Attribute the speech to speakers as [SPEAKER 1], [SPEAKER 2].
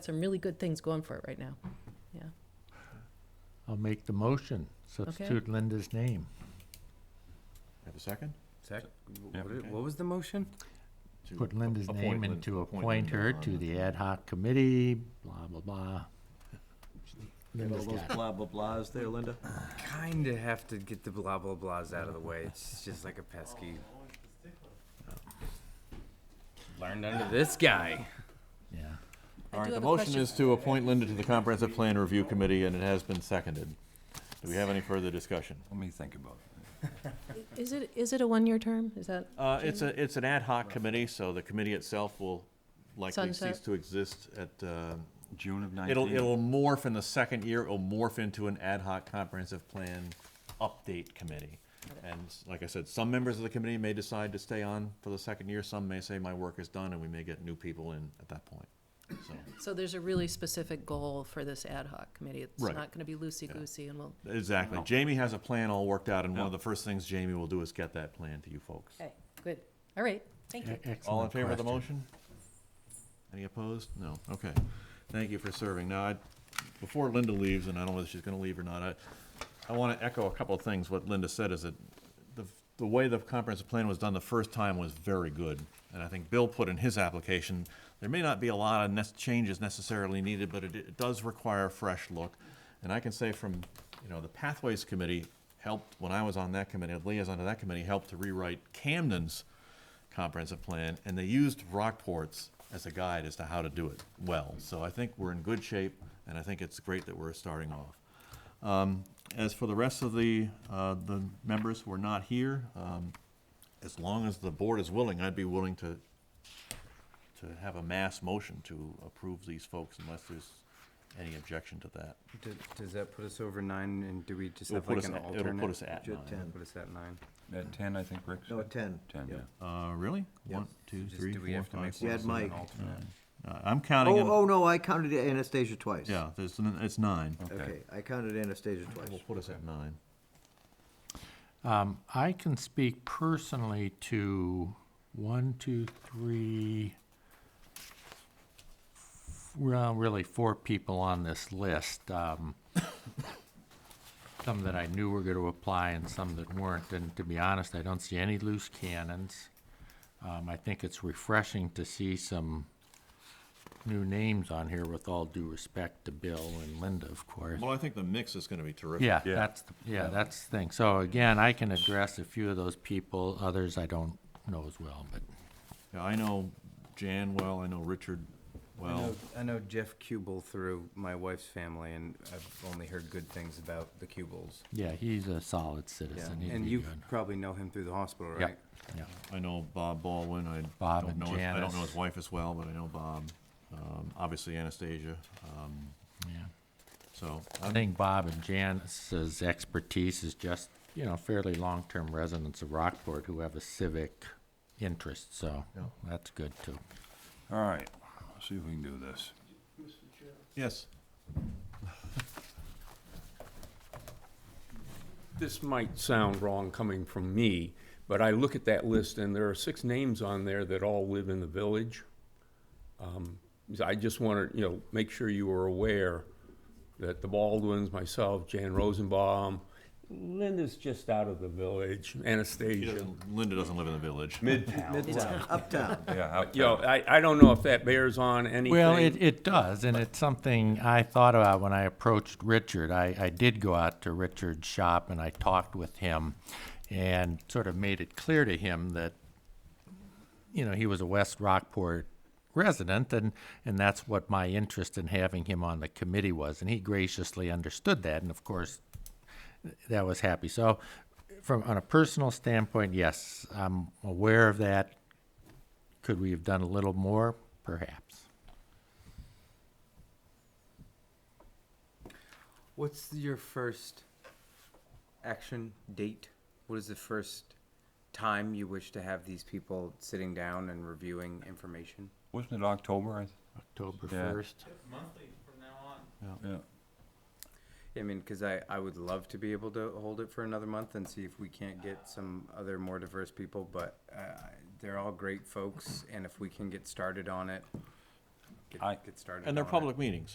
[SPEAKER 1] some really good things going for it right now.
[SPEAKER 2] I'll make the motion, substitute Linda's name,
[SPEAKER 3] Have a second?
[SPEAKER 4] Sec, what
[SPEAKER 5] Yeah.
[SPEAKER 4] did- what was the motion?
[SPEAKER 3] To
[SPEAKER 2] put Linda's
[SPEAKER 3] appoint
[SPEAKER 2] name
[SPEAKER 3] Lin-
[SPEAKER 2] and to appoint her
[SPEAKER 3] Linda on
[SPEAKER 2] to the ad hoc committee, blah, blah, blah.
[SPEAKER 3] Get all
[SPEAKER 2] Linda's
[SPEAKER 3] those
[SPEAKER 2] got it.
[SPEAKER 3] blah, blah, blahs there, Linda?
[SPEAKER 4] Kinda have to get the blah blah blahs out of the way. It's just like a pesky. Learned under this guy.
[SPEAKER 2] Yeah,
[SPEAKER 1] I
[SPEAKER 3] All
[SPEAKER 1] do
[SPEAKER 3] right, the
[SPEAKER 1] have a
[SPEAKER 3] motion
[SPEAKER 1] question.
[SPEAKER 3] is to appoint Linda to the Comprehensive Plan Review Committee, and it has been seconded. Do we have any further discussion?
[SPEAKER 5] Let me think about it.
[SPEAKER 1] Is it, is it a one-year term? Is that,
[SPEAKER 3] Uh, it's a, it's an ad hoc committee, so the committee itself will likely
[SPEAKER 1] Sunset.
[SPEAKER 3] cease to exist at, uh,
[SPEAKER 5] June of 19.
[SPEAKER 3] it'll, it'll morph in the second year, it'll morph into an ad hoc comprehensive plan update committee. And s- like I said, some members of the committee may decide to stay on for the second year, some may say my work is done, and we may get new people in at that point, so.
[SPEAKER 1] so there's a really specific goal for this ad hoc committee. It's
[SPEAKER 3] Right.
[SPEAKER 1] not gonna be loosey-goosey and we'll,
[SPEAKER 3] Exactly. Jamie has a plan all worked out, and one of the first things Jamie will do is get that plan to you folks.
[SPEAKER 1] okay, good. All right, thank you.
[SPEAKER 2] E- excellent
[SPEAKER 3] All in favor of the
[SPEAKER 2] question.
[SPEAKER 3] motion? Any opposed? No. Okay. Thank you for serving. Now, I, before Linda leaves, and I don't know whether she's gonna leave or not, I, I wanna echo a couple of things. What Linda said is that the, the way the comprehensive plan was done the first time was very good. And I think Bill put in his application, there may not be a lot of nec- changes necessarily needed, but it, it does require a fresh look. And I can say from, you know, the Pathways Committee helped, when I was on that committee, liaison to that committee, helped to rewrite Camden's comprehensive plan, and they used Rockport's as a guide as to how to do it well. So I think we're in good shape, and I think it's great that we're starting off. Um, As for the rest of the, uh, the members who are not here, um, as long as the board is willing, I'd be willing to, to have a mass motion to approve these folks unless there's any objection to that.
[SPEAKER 4] D- Does that put us over nine and do we just
[SPEAKER 3] It'll
[SPEAKER 4] have like
[SPEAKER 3] put
[SPEAKER 4] an
[SPEAKER 3] us at- it'll put
[SPEAKER 4] alternate?
[SPEAKER 3] us at
[SPEAKER 4] Ju-
[SPEAKER 3] nine.
[SPEAKER 4] ten, Put us at nine.
[SPEAKER 5] At 10, I think, Rick?
[SPEAKER 6] No,
[SPEAKER 5] said?
[SPEAKER 6] at ten.
[SPEAKER 5] 10, yeah.
[SPEAKER 3] Uh, Really?
[SPEAKER 6] Yeah.
[SPEAKER 3] One, two,
[SPEAKER 4] Just
[SPEAKER 3] three,
[SPEAKER 4] do we
[SPEAKER 3] four,
[SPEAKER 4] have to
[SPEAKER 3] five,
[SPEAKER 4] make
[SPEAKER 3] six.
[SPEAKER 6] You had
[SPEAKER 4] one of them an
[SPEAKER 6] Mike.
[SPEAKER 4] alternate?
[SPEAKER 3] Uh, I'm counting,
[SPEAKER 6] Oh,
[SPEAKER 3] them-
[SPEAKER 6] oh, no, I counted Anastasia twice.
[SPEAKER 3] yeah, there's, n- it's nine.
[SPEAKER 6] Okay, I counted Anastasia twice.
[SPEAKER 3] We'll put us at nine.
[SPEAKER 2] Um, I can speak personally to one, two, three, f- well, really four people on this list. Um, some that I knew were going to apply and some that weren't. And to be honest, I don't see any loose cannons. Um, I think it's refreshing to see some new names on here with all due respect to Bill and Linda, of course.
[SPEAKER 3] Well, I think the mix is gonna be terrific.
[SPEAKER 2] Yeah,
[SPEAKER 5] Yeah.
[SPEAKER 2] that's, the- yeah, that's the thing. So again, I can address a few of those people, others I don't know as well, but
[SPEAKER 3] Yeah, I know Jan well, I know Richard
[SPEAKER 4] I
[SPEAKER 3] well.
[SPEAKER 4] know- I know Jeff Kubel through my wife's family and I've only heard good things about the Kubels.
[SPEAKER 2] yeah, he's a solid citizen. He'd
[SPEAKER 4] And
[SPEAKER 2] be
[SPEAKER 4] you
[SPEAKER 2] good.
[SPEAKER 4] probably know him through the hospital,
[SPEAKER 2] Yeah,
[SPEAKER 4] right?
[SPEAKER 2] yeah.
[SPEAKER 3] I know Bob Baldwin, I
[SPEAKER 2] Bob
[SPEAKER 3] don't
[SPEAKER 2] and
[SPEAKER 3] know, his- I don't know
[SPEAKER 2] Janice.
[SPEAKER 3] his wife as well, but I know Bob. Um, Obviously Anastasia, um,
[SPEAKER 2] yeah.
[SPEAKER 3] so,
[SPEAKER 2] I think Bob and Janice's expertise is just, you know, fairly long-term residents of Rockport who have a civic interest, so
[SPEAKER 3] Yeah.
[SPEAKER 2] that's good too.
[SPEAKER 5] All right, let's see if we can do this.
[SPEAKER 3] yes,
[SPEAKER 7] This might sound wrong coming from me, but I look at that list and there are six names on there that all live in the village. Um, so I just want to, you know, make sure you are aware that the Baldwins, myself, Jan Rosenbaum, Linda's just out of the village,
[SPEAKER 3] he
[SPEAKER 7] Anastasia.
[SPEAKER 3] doesn't- Linda doesn't live in the village.
[SPEAKER 6] Midtown, uptown.
[SPEAKER 5] Yeah. out
[SPEAKER 7] You know,
[SPEAKER 5] there.
[SPEAKER 7] I, I don't know if that bears on anything.
[SPEAKER 2] Well, it, it does, and it's something I thought about when I approached Richard. I, I did go out to Richard's shop and I talked with him and sort of made it clear to him that, you know, he was a West Rockport resident and, and that's what my interest in having him on the committee was. And he graciously understood that, and of course, that was happy. So, from on a personal standpoint, yes, I'm aware of that. Could we have done a little more? Perhaps.
[SPEAKER 4] What's your first action date? What is the first time you wish to have these people sitting down and reviewing information?
[SPEAKER 5] Wasn't it October? I th-
[SPEAKER 2] October
[SPEAKER 5] Yeah.
[SPEAKER 2] first.
[SPEAKER 5] Yeah.
[SPEAKER 4] I mean, because I, I would love to be able to hold it for another month and see if we can't get some other more diverse people, but uh, they're all great folks, and if we can get started on it,
[SPEAKER 8] get,
[SPEAKER 9] I-
[SPEAKER 8] get started.
[SPEAKER 4] And they're
[SPEAKER 8] on it.
[SPEAKER 4] public meetings.